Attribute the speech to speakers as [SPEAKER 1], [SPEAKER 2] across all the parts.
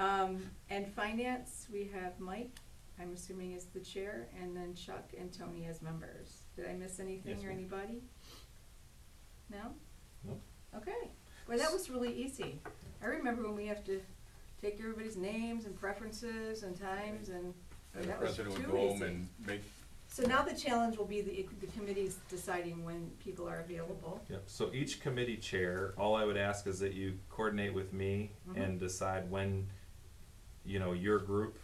[SPEAKER 1] Um, and finance, we have Mike, I'm assuming is the chair, and then Chuck and Tony as members. Did I miss anything
[SPEAKER 2] Yes,
[SPEAKER 1] or
[SPEAKER 2] ma'am.
[SPEAKER 1] anybody? No?
[SPEAKER 2] Nope.
[SPEAKER 1] Okay, well, that was really easy. I remember when we have to take everybody's names and preferences and times and,
[SPEAKER 3] And the
[SPEAKER 1] that was too
[SPEAKER 3] president would go home
[SPEAKER 1] easy.
[SPEAKER 3] and make,
[SPEAKER 1] So now the challenge will be the, the committee's deciding when people are available.
[SPEAKER 2] Yep, so each committee chair, all I would ask is that you coordinate with me and decide when, you know, your group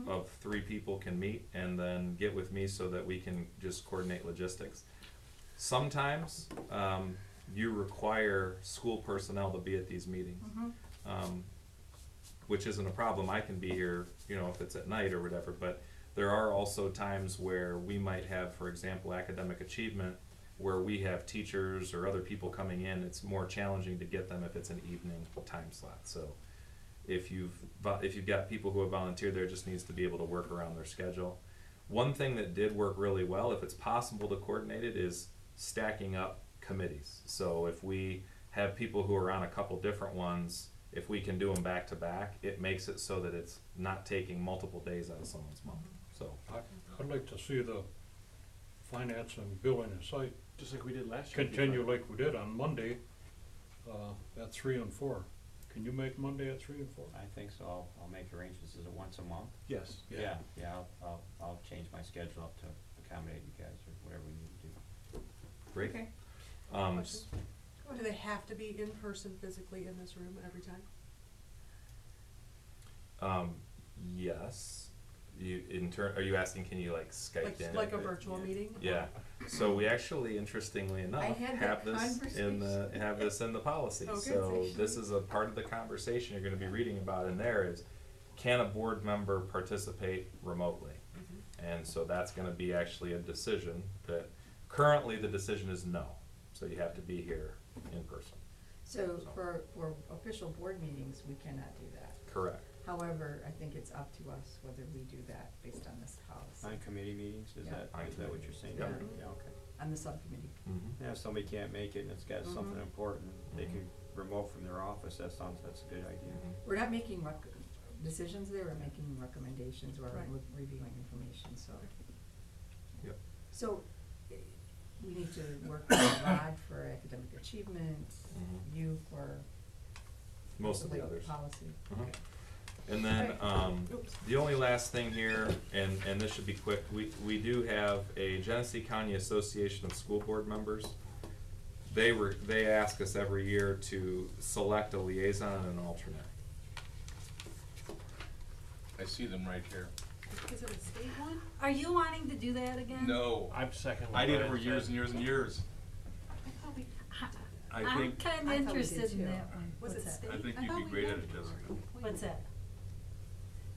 [SPEAKER 1] Mhm.
[SPEAKER 2] of three people can meet and then get with me so that we can just coordinate logistics. Sometimes, um, you require school personnel to be at these meetings.
[SPEAKER 1] Mhm.
[SPEAKER 2] um, which isn't a problem. I can be here, you know, if it's at night or whatever. But there are also times where we might have, for example, academic achievement, where we have teachers or other people coming in. It's more challenging to get them if it's an evening time slot. So if you've vo- if you've got people who have volunteered, there just needs to be able to work around their schedule. One thing that did work really well, if it's possible to coordinate it, is stacking up committees. So if we have people who are on a couple different ones, if we can do them back to back, it makes it so that it's not taking multiple days out of someone's month. So
[SPEAKER 4] I- I'd like to see the finance and billing and site
[SPEAKER 3] just like we did last year.
[SPEAKER 4] continue like we did on Monday, uh, at three and four. Can you make Monday at three and four?
[SPEAKER 5] I think so, I'll, I'll make arrangements, is it once a month?
[SPEAKER 3] Yes.
[SPEAKER 4] Yeah.
[SPEAKER 5] Yeah, I'll, I'll, I'll change my schedule up to accommodate you guys or whatever we need to do.
[SPEAKER 2] great.
[SPEAKER 1] Okay.
[SPEAKER 2] Um,
[SPEAKER 6] Questions? Do they have to be in person physically in this room every time?
[SPEAKER 2] um, yes. You in turn, are you asking? Can you like Skype
[SPEAKER 6] Like,
[SPEAKER 2] in?
[SPEAKER 6] like a virtual
[SPEAKER 3] yeah.
[SPEAKER 6] meeting?
[SPEAKER 2] Yeah. So we actually, interestingly enough,
[SPEAKER 1] had
[SPEAKER 2] have
[SPEAKER 1] that
[SPEAKER 2] this in the have this in the policy.
[SPEAKER 6] Oh, good.
[SPEAKER 2] so this is a part of the conversation you're going to be reading about in there is can a board member participate remotely?
[SPEAKER 6] Mm-hmm.
[SPEAKER 2] And so that's going to be actually a decision that currently the decision is no. So you have to be here in person.
[SPEAKER 1] So for, for official board meetings, we cannot do that.
[SPEAKER 2] Correct.
[SPEAKER 1] However, I think it's up to us whether we do that based on this policy,
[SPEAKER 5] On committee meetings, is
[SPEAKER 1] Yeah.
[SPEAKER 5] that,
[SPEAKER 2] On
[SPEAKER 5] is that what
[SPEAKER 2] committee
[SPEAKER 5] you're saying?
[SPEAKER 2] meetings,
[SPEAKER 1] yeah.
[SPEAKER 5] okay.
[SPEAKER 1] on the subcommittee.
[SPEAKER 2] Mm-hmm.
[SPEAKER 5] Yeah, if somebody can't make it and it's got something
[SPEAKER 1] Mhm.
[SPEAKER 5] important, they
[SPEAKER 2] Mhm.
[SPEAKER 5] can remote from their office, that sounds, that's a good idea.
[SPEAKER 2] Mm-hmm.
[SPEAKER 1] We're not making rec- decisions there, we're making recommendations or
[SPEAKER 6] Right.
[SPEAKER 1] re- reviewing information, so.
[SPEAKER 2] Yep.
[SPEAKER 1] So, eh, we need to work with Rod for academic achievement,
[SPEAKER 7] Mm-hmm.
[SPEAKER 2] Mhm.
[SPEAKER 1] you for.
[SPEAKER 2] Most of the
[SPEAKER 1] like, um,
[SPEAKER 2] others.
[SPEAKER 1] Policy.
[SPEAKER 2] Mhm. And then, um, the only last thing here, and, and this should be quick, we, we do have a Genesee County Association of School Board Members. They were, they ask us every year to select a liaison and an alternate.
[SPEAKER 3] I see them right here.
[SPEAKER 6] Is it a state one?
[SPEAKER 7] Are you wanting to do that again?
[SPEAKER 3] No,
[SPEAKER 4] I'm second.
[SPEAKER 3] I did it for years and years and years.
[SPEAKER 7] I thought we- I-
[SPEAKER 3] I
[SPEAKER 7] I'm
[SPEAKER 3] think,
[SPEAKER 7] kinda
[SPEAKER 1] I thought we did
[SPEAKER 7] interested
[SPEAKER 1] too.
[SPEAKER 7] in that one.
[SPEAKER 6] Was it
[SPEAKER 7] What's that?
[SPEAKER 6] state?
[SPEAKER 3] I think
[SPEAKER 6] I
[SPEAKER 3] you'd
[SPEAKER 6] thought
[SPEAKER 3] be
[SPEAKER 6] we
[SPEAKER 3] great
[SPEAKER 6] did.
[SPEAKER 3] at it, Jessica.
[SPEAKER 7] What's that?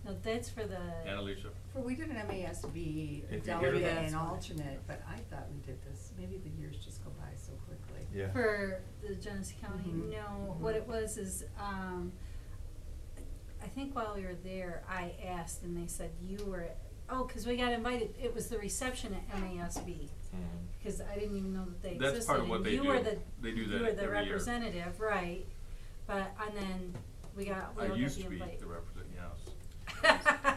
[SPEAKER 7] No, that's for
[SPEAKER 3] And
[SPEAKER 7] the,
[SPEAKER 3] Alicia.
[SPEAKER 1] For, we did an MASB
[SPEAKER 2] If you hear
[SPEAKER 1] delegate
[SPEAKER 2] that-
[SPEAKER 1] and alternate, but I thought we did this, maybe the years just go by so quickly.
[SPEAKER 2] Yeah.
[SPEAKER 7] for the Genesee County,
[SPEAKER 1] Mhm.
[SPEAKER 7] no, what it was is, um, I think while we were there, I asked and they said you were, oh, cause we got invited, it was the reception at MASB.
[SPEAKER 2] Mhm.
[SPEAKER 7] Cause I didn't even know that they existed.
[SPEAKER 3] That's part of what
[SPEAKER 7] and
[SPEAKER 3] they
[SPEAKER 7] you
[SPEAKER 3] do.
[SPEAKER 7] were the-
[SPEAKER 3] They do
[SPEAKER 7] You were
[SPEAKER 3] that
[SPEAKER 7] the
[SPEAKER 3] every year.
[SPEAKER 7] representative, right, but, and then we got, we
[SPEAKER 3] I
[SPEAKER 7] all got
[SPEAKER 3] used
[SPEAKER 7] the
[SPEAKER 3] to be the
[SPEAKER 7] invite.
[SPEAKER 3] representative, yes.
[SPEAKER 7] Uh,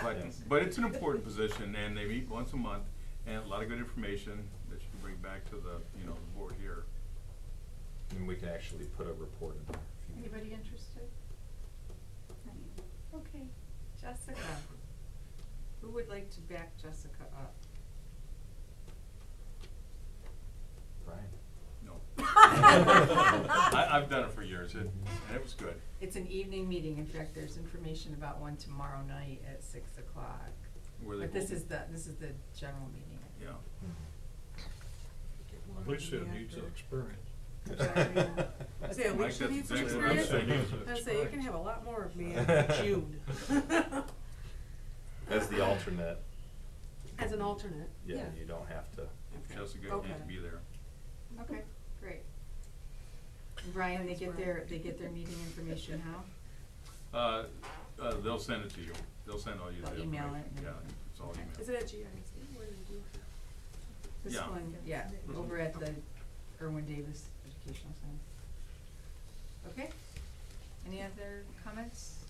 [SPEAKER 3] But, but it's an important position and they meet once a month and a lot of good information that you can bring back to the, you know, the board here.
[SPEAKER 2] And we can actually put a report in there. if you need.
[SPEAKER 1] Anybody interested? Okay, Jessica. Who would like to back Jessica up?
[SPEAKER 2] Brian.
[SPEAKER 3] No. I, I've done it for years it- and it was good.
[SPEAKER 1] It's an evening meeting, in fact, there's information about one tomorrow night at six o'clock.
[SPEAKER 3] Where they
[SPEAKER 1] But this
[SPEAKER 3] go-
[SPEAKER 1] is the, this is the general meeting.
[SPEAKER 3] Yeah.
[SPEAKER 4] At least it needs the experience.
[SPEAKER 2] Mm-hmm.
[SPEAKER 6] Is it a
[SPEAKER 3] Mike,
[SPEAKER 6] week
[SPEAKER 3] that's
[SPEAKER 6] need some
[SPEAKER 3] exactly what I'm
[SPEAKER 6] experience?
[SPEAKER 3] saying.
[SPEAKER 6] I say, you can have a lot more of me in June.
[SPEAKER 2] As the alternate,
[SPEAKER 6] As an alternate,
[SPEAKER 2] yeah,
[SPEAKER 6] yeah.
[SPEAKER 2] you don't have to.
[SPEAKER 6] Okay.
[SPEAKER 3] Jessica, you
[SPEAKER 6] Okay.
[SPEAKER 3] need to be there.
[SPEAKER 1] Okay, great. Brian, they get their, they get their meeting information how?
[SPEAKER 3] Uh, uh, they'll send it to you. They'll send all you the
[SPEAKER 1] They'll
[SPEAKER 3] information.
[SPEAKER 1] email it and-
[SPEAKER 3] Yeah, it's all
[SPEAKER 1] Okay.
[SPEAKER 6] Is
[SPEAKER 3] email.
[SPEAKER 6] it at GIC? What do you do?
[SPEAKER 1] This
[SPEAKER 3] Yeah.
[SPEAKER 1] one, yeah, over at the Irwin Davis Educational Center. Okay, any other comments?